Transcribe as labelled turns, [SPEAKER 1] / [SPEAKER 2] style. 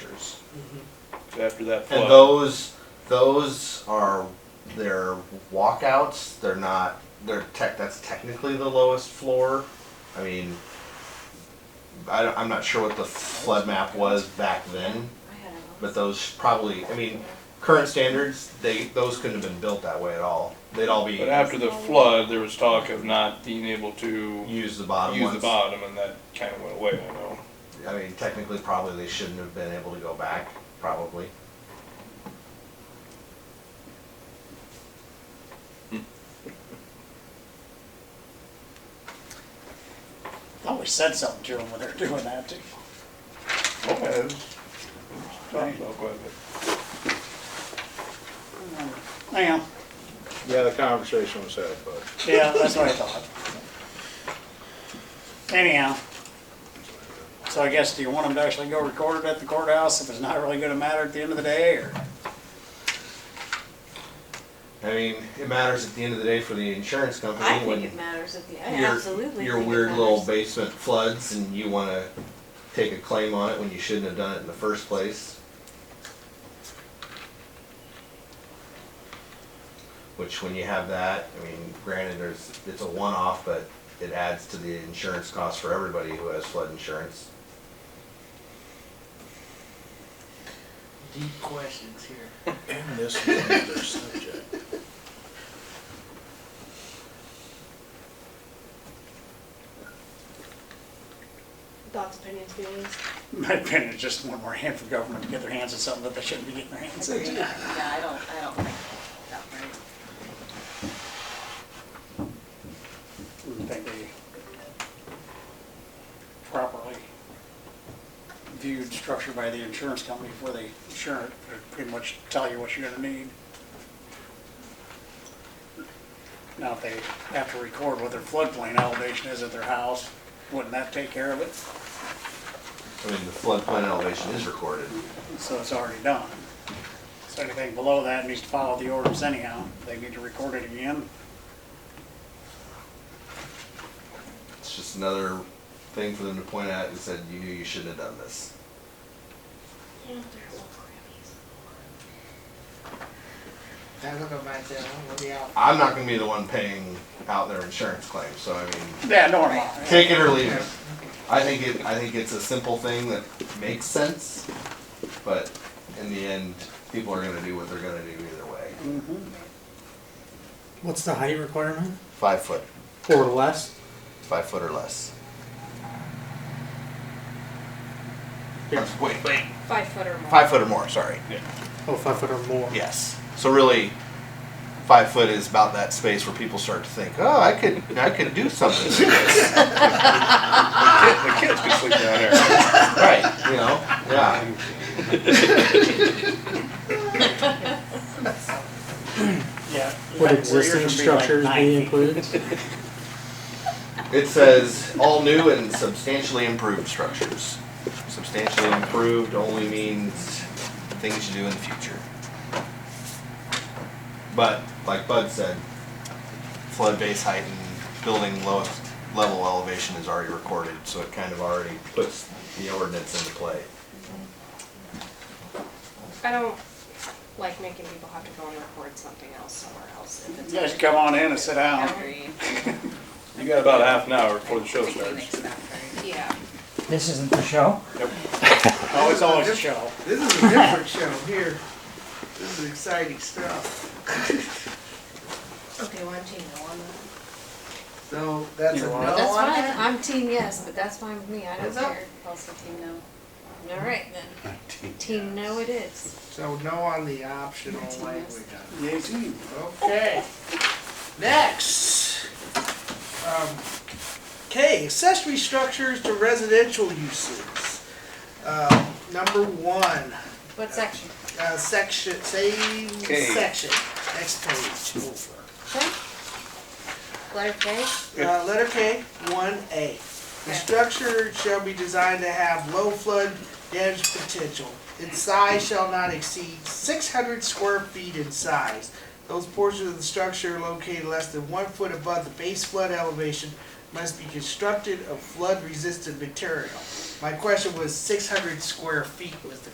[SPEAKER 1] years after that flood.
[SPEAKER 2] And those, those are their walkouts, they're not, they're tech, that's technically the lowest floor. I mean, I don't, I'm not sure what the flood map was back then, but those probably, I mean, current standards, they, those couldn't have been built that way at all. They'd all be,
[SPEAKER 1] But after the flood, there was talk of not being able to
[SPEAKER 2] use the bottom
[SPEAKER 1] use the
[SPEAKER 2] ones.
[SPEAKER 1] bottom, and that kind of went away, I know.
[SPEAKER 2] I mean, technically, probably they shouldn't have been able to go back, probably.
[SPEAKER 3] I always said something to them when they're doing that too.
[SPEAKER 1] Okay. Talked about quite a bit.
[SPEAKER 3] Yeah,
[SPEAKER 4] Yeah, the conversation was had, but
[SPEAKER 3] yeah, that's what I thought. Anyhow, so I guess, do you want them to actually go record it at the courthouse if it's not really gonna matter at the end of the day, or?
[SPEAKER 2] I mean, it matters at the end of the day for the insurance company.
[SPEAKER 5] I think
[SPEAKER 2] when-
[SPEAKER 5] it matters at the, I
[SPEAKER 2] your,
[SPEAKER 5] absolutely.
[SPEAKER 2] your
[SPEAKER 5] think it
[SPEAKER 2] weird little
[SPEAKER 5] matters.
[SPEAKER 2] basement floods and you want to take a claim on it when you shouldn't have done it in the first place. Which, when you have that, I mean, granted, there's it's a one-off, but it adds to the insurance cost for everybody who has flood insurance.
[SPEAKER 6] Deep questions here.
[SPEAKER 4] in this particular subject,
[SPEAKER 5] Thoughts, opinions, feelings.
[SPEAKER 3] In My opinion is just one more hand for government to get their hands on something that they shouldn't be getting their hands on.
[SPEAKER 7] Yeah, I don't, I don't think that right.
[SPEAKER 3] I think they properly viewed structure by the insurance company before they insure it, they pretty much tell you what you're gonna need. Now, if they have to record what their floodplain elevation is at their house, wouldn't that take care of it?
[SPEAKER 2] I mean, the floodplain elevation is recorded.
[SPEAKER 3] So it's already done. So anything below that needs to follow the orders anyhow, they need to record it again.
[SPEAKER 2] It's just another thing for them to point at and said, you knew you shouldn't have done this.
[SPEAKER 6] I look at myself, what do y'all?
[SPEAKER 2] I'm not going to be the one paying out their insurance claim, so I mean,
[SPEAKER 3] Yeah, no, I'm not.
[SPEAKER 2] Take it or leave it. I think it, I think it's a simple thing that makes sense, but in the end, people are gonna do what they're gonna do either way.
[SPEAKER 8] Mm-hmm. What's the height requirement?
[SPEAKER 2] Five foot,
[SPEAKER 8] Or less?
[SPEAKER 2] five foot or less. Uh, Wait, wait,
[SPEAKER 5] Five foot or more.
[SPEAKER 2] five foot or more, sorry,
[SPEAKER 8] Oh, five foot or more?
[SPEAKER 2] yes. So really, five foot is about that space where people start to think, oh, I could, I could do something with this.
[SPEAKER 1] The kid- The kids could sleep down there.
[SPEAKER 2] Right, you know, yeah.
[SPEAKER 3] Yeah.
[SPEAKER 8] Would
[SPEAKER 3] Where yours
[SPEAKER 8] existing
[SPEAKER 3] would be like
[SPEAKER 8] structures
[SPEAKER 3] nine
[SPEAKER 8] be
[SPEAKER 3] feet.
[SPEAKER 8] included?
[SPEAKER 2] It says all new and substantially improved structures. Substantially improved only means things you do in the future. But, like Bud said, flood base height and building lowest level elevation is already recorded, so it kind of already puts the ordinance into play.
[SPEAKER 5] I don't like making people have to go and record something else somewhere else. if it's-
[SPEAKER 3] Just come on in and sit down.
[SPEAKER 7] Agreed.
[SPEAKER 1] You got about half an hour before the show
[SPEAKER 7] I think he
[SPEAKER 1] starts.
[SPEAKER 7] makes that very-
[SPEAKER 5] Yeah.
[SPEAKER 9] This isn't the show?
[SPEAKER 3] Oh, it's always a show.
[SPEAKER 6] This is a different show here. This is exciting stuff.
[SPEAKER 5] Okay, well, I'm team no on that.
[SPEAKER 6] So that's a
[SPEAKER 3] You
[SPEAKER 6] no
[SPEAKER 3] want-
[SPEAKER 6] on
[SPEAKER 5] That's fine,
[SPEAKER 6] that?
[SPEAKER 5] I'm team yes, but that's fine with me, I don't
[SPEAKER 7] What's up?
[SPEAKER 5] care.
[SPEAKER 7] Also, do you know?
[SPEAKER 5] All right then. Team no it is.
[SPEAKER 6] So no on the optional
[SPEAKER 7] Yes.
[SPEAKER 6] language.
[SPEAKER 3] Yay, team.
[SPEAKER 6] Okay. Next. Um, Okay, accessory structures to residential uses. Uh, Number one,
[SPEAKER 5] What section?
[SPEAKER 6] uh, section, same
[SPEAKER 1] Okay.
[SPEAKER 6] section, next page over.
[SPEAKER 5] Okay. Letter K?
[SPEAKER 6] Uh, letter K, one A. The structure shall be designed to have low flood damage potential. Its size shall not exceed six hundred square feet in size. Those portions of the structure located less than one foot above the base flood elevation must be constructed of flood-resistant material. My question was six hundred square feet was the